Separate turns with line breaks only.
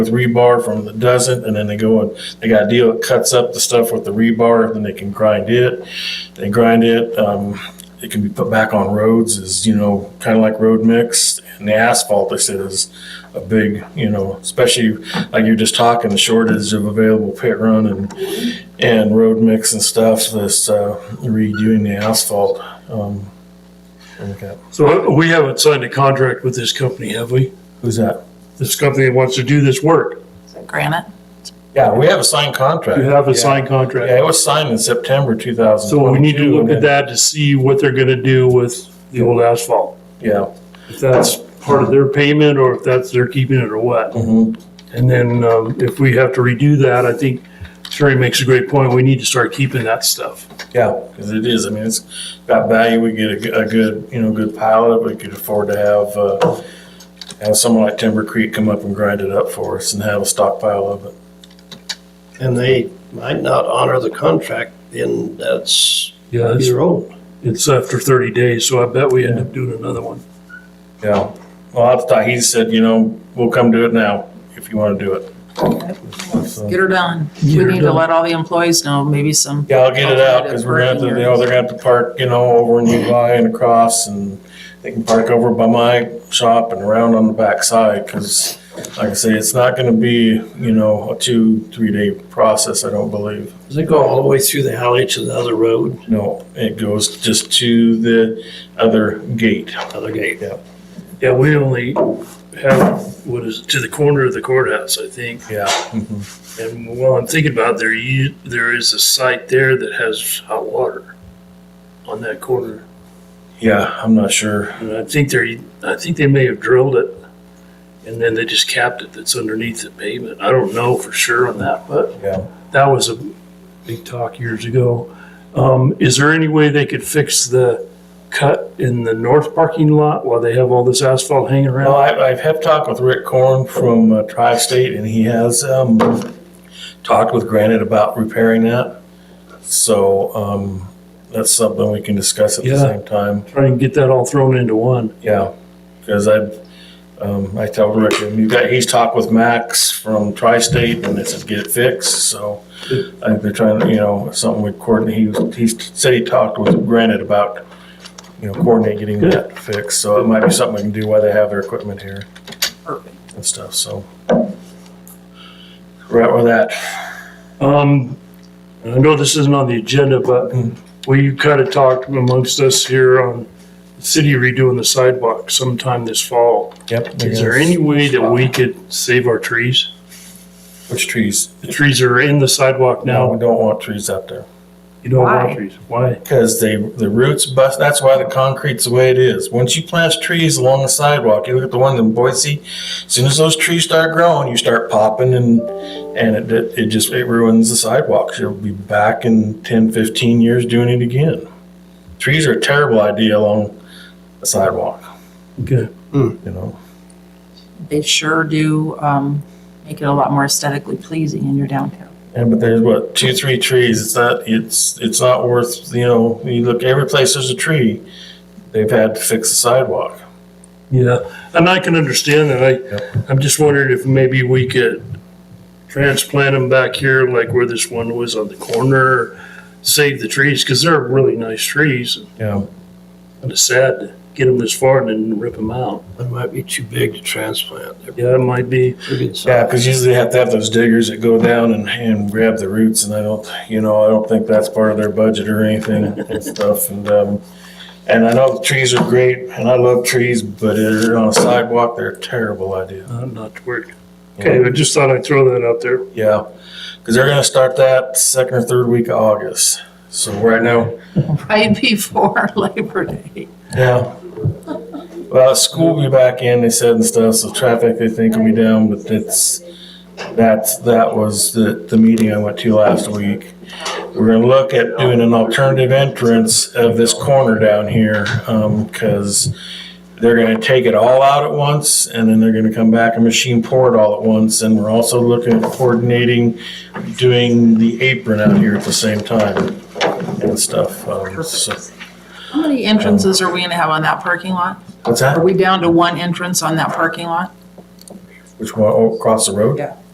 with rebar from the doesn't, and then they go and, they got a deal that cuts up the stuff with the rebar, then they can grind it. They grind it, um, it can be put back on roads is, you know, kind of like road mix. And the asphalt, they said, is a big, you know, especially like you're just talking, the shortage of available pit run and, and road mix and stuff, this, uh, redoing the asphalt. Um, okay.
So we haven't signed a contract with this company, have we?
Who's that?
This company that wants to do this work.
Granite?
Yeah, we have a signed contract.
You have a
Yeah.
signed
Yeah, it
contract.
was signed in September two thousand.
So we need to look at that to see what they're gonna do with the old asphalt.
Yeah.
If that's part of their payment or if that's, they're keeping it or what.
Mhm.
And then, um, if we have to redo that, I think Terry makes a great point. We need to start keeping that stuff.
Yeah, because it is, I mean, it's got value, we get a, g- a good, you know, good pile of it, we could afford to have, uh, have someone like Timber Creek come up and grind it up for us and have a stockpile of it.
And they might not honor the contract, then that's
Yeah, it's,
your own.
it's after thirty days, so I bet we end up doing another one.
Yeah, well, I thought, he said, you know, we'll come do it now, if you want to do it. So-
Get her done. We
her
need to
done.
let all the employees know, maybe some,
Yeah, I'll get it out, because we're gonna, have to- you know, they're gonna have to park, you know, over in Uvi and across, and they can park over by my shop and around on the backside, because like I say, it's not gonna be, you know, a two, three-day process, I don't believe.
Does it go all the way through the alley to the other road,
No, it goes just to the other gate.
other gate?
Yeah, we only have, what is, it, to the corner of the courthouse, I think.
Yeah. mm-hmm.
And while I'm thinking about it, there, you, there is a site there that has hot water on that corner.
Yeah, I'm not sure.
And I think they're, I think they may have drilled it and then they just capped it that's underneath the pavement. I don't know for sure on that, but
Yeah.
that was a big talk years ago. Um, is there any way they could fix the cut in the north parking lot while they have all this asphalt hanging
Well,
around?
I, I've had talk with Rick Korn from uh, Tri-State, and he has, um, talked with Granite about repairing that. So, um, that's something we can discuss at the
Yeah.
same time,
Try and get that all thrown into one.
yeah. Cause I, um, I tell Rick, and you got, he's talked with Max from Tri-State, and they said get it fixed, so. I think they're trying, to, you know, something we coordinate, he, was- he said he talked with Granite about, you know, coordinating getting that fixed, so it might be something we can do while they have their equipment here and stuff, so. Right with that.
Um, I know this isn't on the agenda, but we kind of talked amongst us here on the city redoing the sidewalk sometime this fall.
Yep.
Is there any way that we could save our trees?
Which trees?
The trees are in the sidewalk
No, we
now.
don't want trees out there.
You don't want
Why?
trees. Why?
Because they, the roots bust, that's why the concrete's the way it is. Once you plant trees along the sidewalk, you look at the ones in Boise, as soon as those trees start growing, you start popping and, and it- it, it just, it ruins the sidewalks. You'll be back in 10, 15 years doing it again. Trees are a terrible idea along a sidewalk,
Okay.
you know?
they sure do, um, make it a lot more aesthetically pleasing in your downtown.
Yeah, but there's what two, three trees. It's not. It's it's not worth. You know, you look every place there's a tree. They've had to fix the sidewalk.
Yeah, and I can understand that.
Yep.
I, I'm just wondering if maybe we could transplant them back here, like where this one was on the corner, save the trees, because they're really nice trees.
Yeah,
And it's sad to get them this far and then rip them out.
That might be too big to transplant. They're
Yeah, it might be.
pretty good
yeah.
size.
Because usually they have to have those diggers that go down and, and grab the roots. And I don't. You know, I don't think that's part of their budget or anything and stuff. And um, and I know the trees are great, and I love trees, but they're on a sidewalk. They're a terrible idea.
Uh, not to work. Okay, I just thought I'd throw that out there.
Yeah, because they're going to start that second or third week of August. So right now,
Right before Labor Day.
Yeah. Well, school will be back in, they said and stuff, so traffic they think will be down, but it's, that's, that was the, the meeting I went to last week. We're gonna look at doing an alternative entrance of this corner down here, um, cause they're gonna take it all out at once and then they're gonna come back and machine pour it all at once. And we're also looking at coordinating, doing the apron out here at the same time and stuff. um, so-
How many entrances are we gonna have on that parking lot?
What's that?
Are we down to one entrance on that parking lot?
Which one, oh, across the road?
Yeah.